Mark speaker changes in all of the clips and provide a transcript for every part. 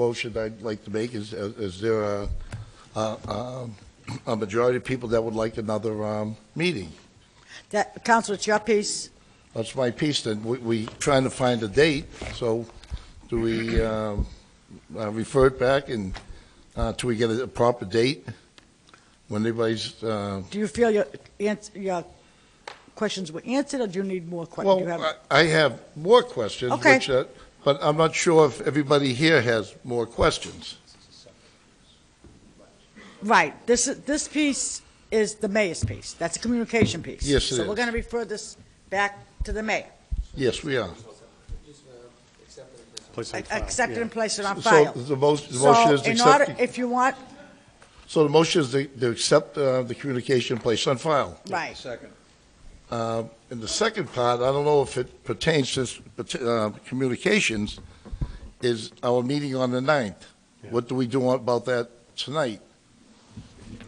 Speaker 1: motion I'd like to make is, uh, is there a, a, a- a majority of people that would like another um, meeting?
Speaker 2: That, Counsel, it's your piece.
Speaker 1: That's my piece, then we, we trying to find a date, so do we um, uh, refer it back and, uh, till we get a proper date? When everybody's, uh,
Speaker 2: Do you feel your, ans- your questions were answered, or do you need more questions?
Speaker 1: well, uh, I- I have more questions,
Speaker 2: Okay.
Speaker 1: which, uh, but I'm not sure if everybody here has more questions.
Speaker 2: Right, this, is- this piece is the mayor's piece, that's a communication piece.
Speaker 1: Yes, it
Speaker 2: So we're
Speaker 1: is.
Speaker 2: gonna refer this back to the mayor,
Speaker 1: Yes, we are.
Speaker 3: Place on file.
Speaker 2: accept it and place it on
Speaker 1: So
Speaker 2: file.
Speaker 1: the motion, the motion is
Speaker 2: So in order,
Speaker 1: accepted.
Speaker 2: if you want,
Speaker 1: So the motion is to to accept uh, the communication placed on file.
Speaker 2: right,
Speaker 1: Uh, In the second part, I don't know if it pertains to s- pert- uh, communications, is our meeting on the 9th. What do we do about that tonight?
Speaker 2: the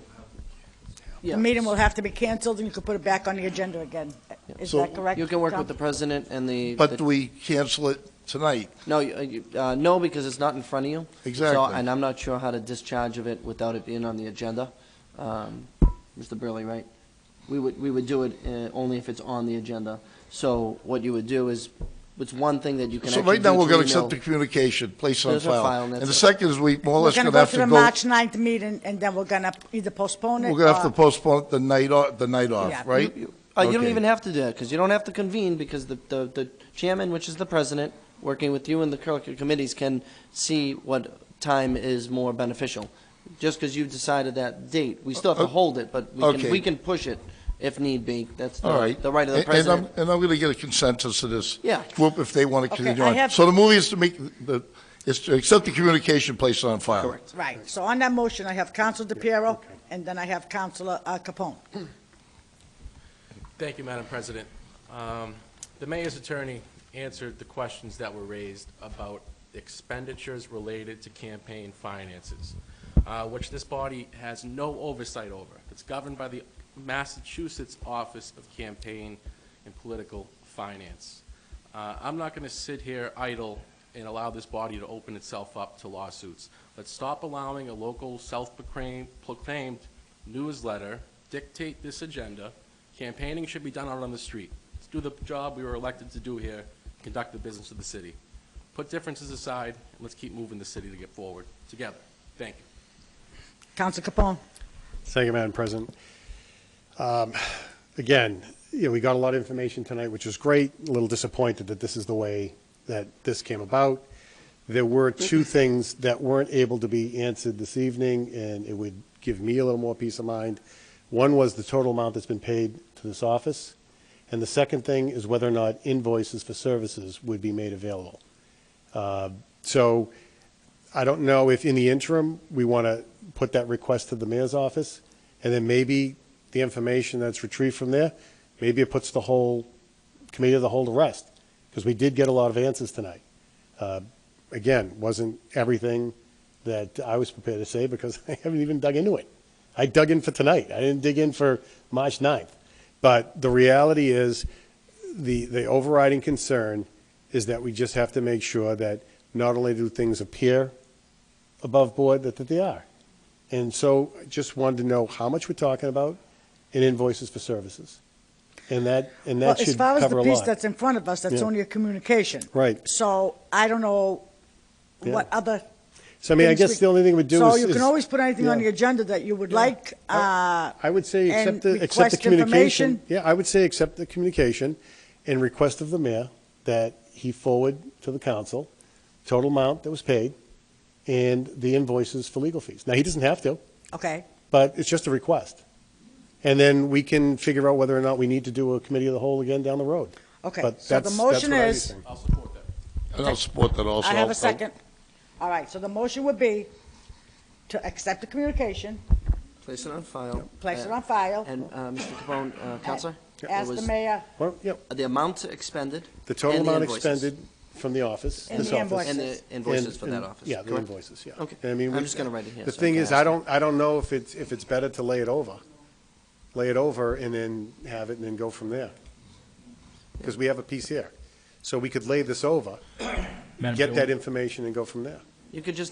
Speaker 4: Yeah.
Speaker 2: meeting will have to be canceled, and you can put it back on the agenda again. Is
Speaker 1: So-
Speaker 2: that correct?
Speaker 4: You can work with the
Speaker 2: John?
Speaker 4: president and the.
Speaker 1: But
Speaker 4: the-
Speaker 1: do we cancel it tonight?
Speaker 4: No, you- uh, you- uh, no, because it's not in front of you. So-
Speaker 1: Exactly.
Speaker 4: And I'm not sure how to discharge of it without it being on the agenda. Um, Mr. Burley, right? We would, we would do it uh, only if it's on the agenda. So what you would do is, it's one thing that you can
Speaker 1: So
Speaker 4: actually
Speaker 1: right now,
Speaker 4: do
Speaker 1: we're
Speaker 4: to
Speaker 1: going to accept the
Speaker 4: email.
Speaker 1: communication placed on
Speaker 4: There's a file,
Speaker 1: file.
Speaker 4: and
Speaker 1: And
Speaker 4: that's
Speaker 1: the
Speaker 4: it.
Speaker 1: second is we more or
Speaker 2: We're
Speaker 1: less
Speaker 2: gonna
Speaker 1: going to
Speaker 2: go
Speaker 1: have
Speaker 2: to the
Speaker 1: to go,
Speaker 2: March 9th meeting, and then we're gonna either postpone it.
Speaker 1: we're going to have
Speaker 2: or-
Speaker 1: to postpone it the night, o- the night
Speaker 2: uh, Yeah.
Speaker 1: off, right?
Speaker 4: You- Uh, you don't
Speaker 1: Okay.
Speaker 4: even have to do that, because you don't have to convene, because the, the, the chairman, which is the president, working with you and the curricular committees, can see what time is more beneficial. Just because you've decided that date, we still have to
Speaker 1: Uh,
Speaker 4: hold it, but we
Speaker 1: okay.
Speaker 4: can, we can push it if need be. That's
Speaker 1: All
Speaker 4: the,
Speaker 1: right.
Speaker 4: the right of
Speaker 1: A-
Speaker 4: the
Speaker 1: and um,
Speaker 4: president.
Speaker 1: I'm- And I'm going to get a consensus of this.
Speaker 4: Yeah.
Speaker 1: Group if they want to
Speaker 2: Okay,
Speaker 1: continue
Speaker 2: I
Speaker 1: on.
Speaker 2: have-
Speaker 1: So the movie is to make, the is to accept the communication placed on file.
Speaker 4: Correct.
Speaker 2: Right, so on that motion, I have Counsel DePiero, and then I have Counsel uh, Capone.
Speaker 5: Thank you, Madam President. Um, The mayor's attorney answered the questions that were raised about expenditures related to campaign finances, uh, which this body has no oversight over. It's governed by the Massachusetts Office of Campaign and Political Finance. Uh, I'm not going to sit here idle and allow this body to open itself up to lawsuits. Let's stop allowing a local self-proclaimed proclaimed newsletter dictate this agenda. Campaigning should be done out on the street. Let's do the job we were elected to do here, conduct the business of the city. Put differences aside, and let's keep moving the city to get forward together. Thank you.
Speaker 2: Counsel Capone.
Speaker 3: Thank you, Madam President. Um, Again, you know, we got a lot of information tonight, which was great. A little disappointed that this is the way that this came about. There were two things that weren't able to be answered this evening, and it would give me a little more peace of mind. One was the total amount that's been paid to this office, and the second thing is whether or not invoices for services would be made available. Uh, So I don't know if in the interim, we want to put that request to the mayor's office, and then maybe the information that's retrieved from there, maybe it puts the whole committee of the whole to rest, because we did get a lot of answers tonight. Uh, Again, wasn't everything that I was prepared to say, because I haven't even dug into it. I dug in for tonight, I didn't dig in for March 9th. But the reality is, the, the overriding concern is that we just have to make sure that not only do things appear above board, that, that they are. And so I just wanted to know how much we're talking about in invoices for services. And that, and
Speaker 2: Well,
Speaker 3: that
Speaker 2: as
Speaker 3: should
Speaker 2: far as
Speaker 3: cover
Speaker 2: the
Speaker 3: a
Speaker 2: piece
Speaker 3: lot.
Speaker 2: that's in front of us, that's
Speaker 3: Yeah.
Speaker 2: only a communication.
Speaker 3: Right.
Speaker 2: So I don't know
Speaker 3: Yeah.
Speaker 2: what other.
Speaker 3: So I mean, I
Speaker 2: things
Speaker 3: guess
Speaker 2: we-
Speaker 3: the only thing we do is.
Speaker 2: So you
Speaker 3: is-
Speaker 2: can always put anything on
Speaker 3: yeah.
Speaker 2: the agenda that you would like, uh,
Speaker 3: I would say
Speaker 2: and
Speaker 3: accept the, accept
Speaker 2: request
Speaker 3: the communication.
Speaker 2: information.
Speaker 3: Yeah, I would say accept the communication and request of the mayor that he forward to the council total amount that was paid and the invoices for legal fees. Now, he doesn't have to,
Speaker 2: uh, okay,
Speaker 3: but it's just a request. And then we can figure out whether or not we need to do a committee of the whole again down the road.
Speaker 2: okay.
Speaker 3: But
Speaker 2: So the
Speaker 3: that's- that's
Speaker 2: motion
Speaker 3: what I'd be
Speaker 2: is,
Speaker 3: saying.
Speaker 5: I'll support that.
Speaker 1: And I'll support that also.
Speaker 2: I have
Speaker 1: I'll-
Speaker 2: a
Speaker 4: uh,
Speaker 2: second. All right, so the motion would be to accept the communication,
Speaker 4: Place it on file.
Speaker 2: place it
Speaker 4: Uh,
Speaker 2: on file,
Speaker 4: And, uh, Mr. Capone, uh, Counselor? It
Speaker 2: ask the
Speaker 4: was
Speaker 2: mayor,
Speaker 3: Well, yep,
Speaker 4: The amount expended.
Speaker 3: the total
Speaker 4: and
Speaker 3: amount
Speaker 4: invoices.
Speaker 3: expended from the office,
Speaker 2: And
Speaker 3: this
Speaker 2: the
Speaker 3: office.
Speaker 2: invoices.
Speaker 4: And the invoices
Speaker 3: And-
Speaker 4: for that
Speaker 3: and-
Speaker 4: office.
Speaker 3: Yeah, the
Speaker 4: correct?
Speaker 3: invoices, yeah.
Speaker 4: Okay.
Speaker 3: And I mean,
Speaker 4: I'm
Speaker 3: we-
Speaker 4: just gonna write it here
Speaker 3: The
Speaker 4: so I
Speaker 3: thing
Speaker 4: can
Speaker 3: is,
Speaker 4: ask
Speaker 3: I
Speaker 4: it.
Speaker 3: don't, I don't know if it's, if it's better to lay it over, lay it over and then have it and then go from there. Because we have a piece here. So we could lay this over,
Speaker 6: Madam
Speaker 3: get
Speaker 6: Chair,
Speaker 3: that information and go from there.
Speaker 4: You could just